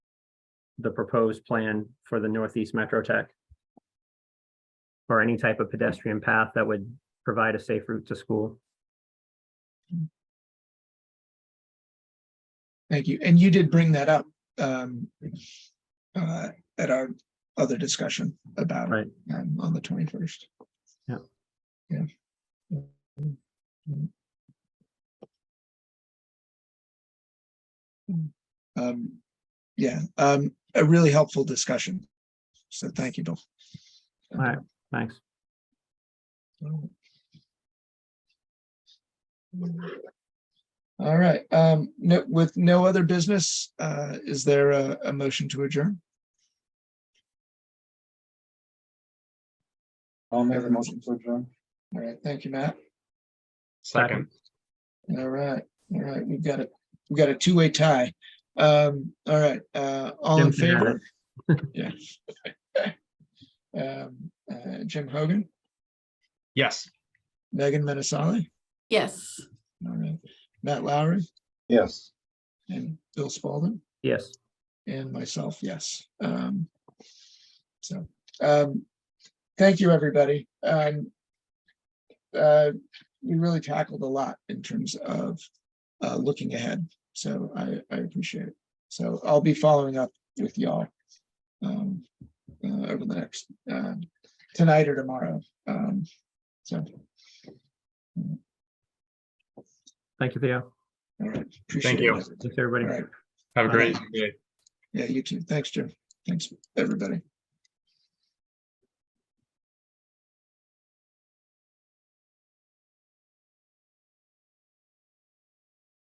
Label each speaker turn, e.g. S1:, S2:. S1: the proposed plan for the Northeast Metro Tech. Or any type of pedestrian path that would provide a safe route to school.
S2: Thank you. And you did bring that up um uh at our other discussion about it
S1: Right.
S2: um, on the twenty-first.
S1: Yeah.
S2: Yeah. Um, yeah, um, a really helpful discussion. So thank you, Bill.
S1: All right. Thanks.
S2: Mm. All right, um, no, with no other business, uh, is there a, a motion to adjourn?
S3: I'll make a motion to adjourn.
S2: All right, thank you, Matt.
S1: Second.
S2: All right, all right, we've got a, we've got a two-way tie. Um, all right, uh, all in
S1: Jim can add
S2: favor? Yeah. Um, uh, Jim Hogan,
S4: Yes.
S2: Megan Menasali,
S5: Yes.
S2: all right, Matt Lowry
S3: Yes.
S2: and Bill Spalding.
S1: Yes.
S2: and myself, yes. Um, so, um, thank you, everybody. Um, uh, we really tackled a lot in terms of uh, looking ahead. So I, I appreciate it. So I'll be following up with y'all um, uh, over the next uh, tonight or tomorrow. Um, so,
S1: Thank you, Theo.
S2: all right. appreciate
S4: you.
S2: it.
S1: Thanks,
S2: All
S1: everybody.
S2: right.
S4: Have a
S2: Bye.
S4: great day.
S2: Yeah, you too. Thanks, Jim. Thanks, everybody.